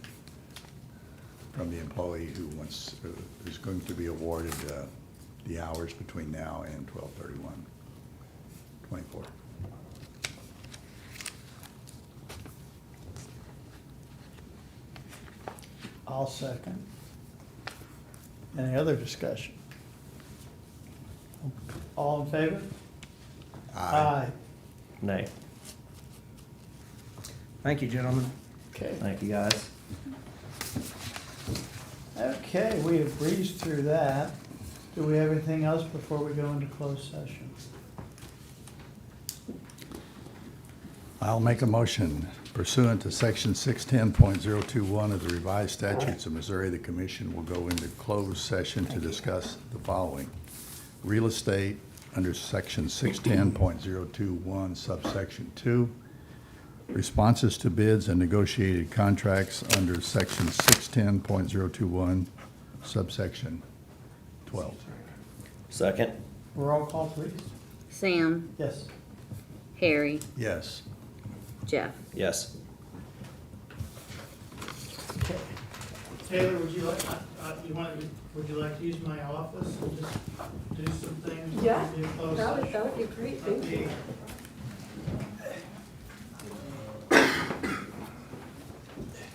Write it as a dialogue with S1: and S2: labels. S1: from the employee who wants, who is going to be awarded uh, the hours between now and 12/31, 24.
S2: I'll second. Any other discussion? All in favor?
S3: Nay. Thank you, gentlemen.
S2: Okay,
S3: Thank you, guys.
S2: okay, we have breezed through that. Do we have anything else before we go into closed session?
S1: I'll make a motion pursuant to section six ten point zero two one of the revised statutes of Missouri, the commission will go into closed session to discuss the following. Real estate under section six ten point zero two one subsection two. Responses to bids and negotiated contracts under section six ten point zero two one subsection twelve.
S3: Second?
S2: Roll call, please.
S4: Sam,
S2: Yes.
S4: Harry,
S1: Yes.
S4: Jeff.
S3: Yes.
S2: Okay. Taylor, would you like, uh, uh, you want, would you like to use my office and just do some things?
S5: Yeah,
S2: Do a closed
S5: That would,
S2: session?
S5: that would be great, thank you.
S2: Update